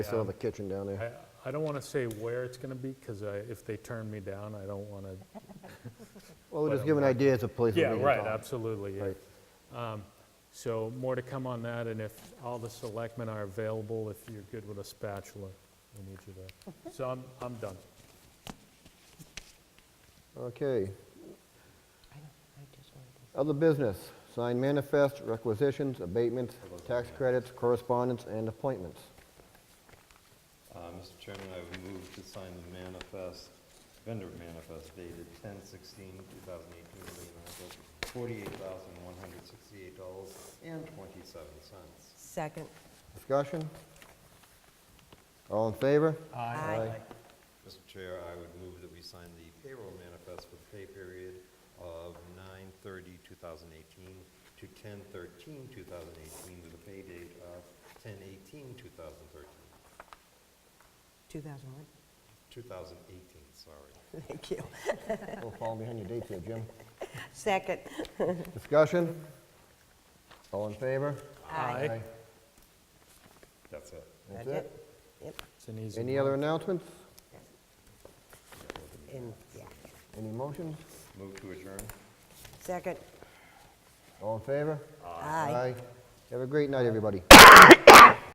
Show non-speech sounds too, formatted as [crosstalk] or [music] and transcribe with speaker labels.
Speaker 1: I still have a kitchen down there.
Speaker 2: I, I don't want to say where it's going to be, because I, if they turn me down, I don't want to.
Speaker 1: Well, we'll just
Speaker 2: But,
Speaker 1: give an
Speaker 2: um,
Speaker 1: idea as a place where
Speaker 2: Yeah,
Speaker 1: we can
Speaker 2: right,
Speaker 1: talk.
Speaker 2: absolutely, yeah.
Speaker 1: Right.
Speaker 2: Um, So more to come on that, and if all the selectmen are available, if you're good with a spatula, we need you there. So I'm, I'm done.
Speaker 1: Okay,
Speaker 3: I know, I just wanted to-
Speaker 1: other business, signed manifest, requisitions, abatements, tax credits, correspondence, and appointments.
Speaker 4: Uh, Mr. Chairman, I would move to sign the manifest, vendor manifest dated 10-16-2018, in the amount of $48,168.27.
Speaker 3: Second.
Speaker 1: Discussion? All in favor?
Speaker 3: Aye.
Speaker 4: Mr. Chair, I would move that we sign the payroll manifest for the pay period of 9/30/2018 to 10/13/2018 with a pay date of 10/18/2013,
Speaker 3: 2001.
Speaker 4: 2018, sorry.
Speaker 3: [laughs] Thank you.
Speaker 1: Don't fall behind your dates here, Jim.
Speaker 3: Second.
Speaker 1: Discussion? All in favor?
Speaker 2: Aye.
Speaker 4: That's it.
Speaker 1: That's
Speaker 3: That's
Speaker 1: it.
Speaker 3: Yep,
Speaker 2: It's an easy
Speaker 1: Any other
Speaker 2: one.
Speaker 1: announcements?
Speaker 3: and, yeah.
Speaker 1: Any motions?
Speaker 4: Move to adjourn.
Speaker 3: Second.
Speaker 1: All in favor?
Speaker 3: Aye.
Speaker 1: Have a great night, everybody.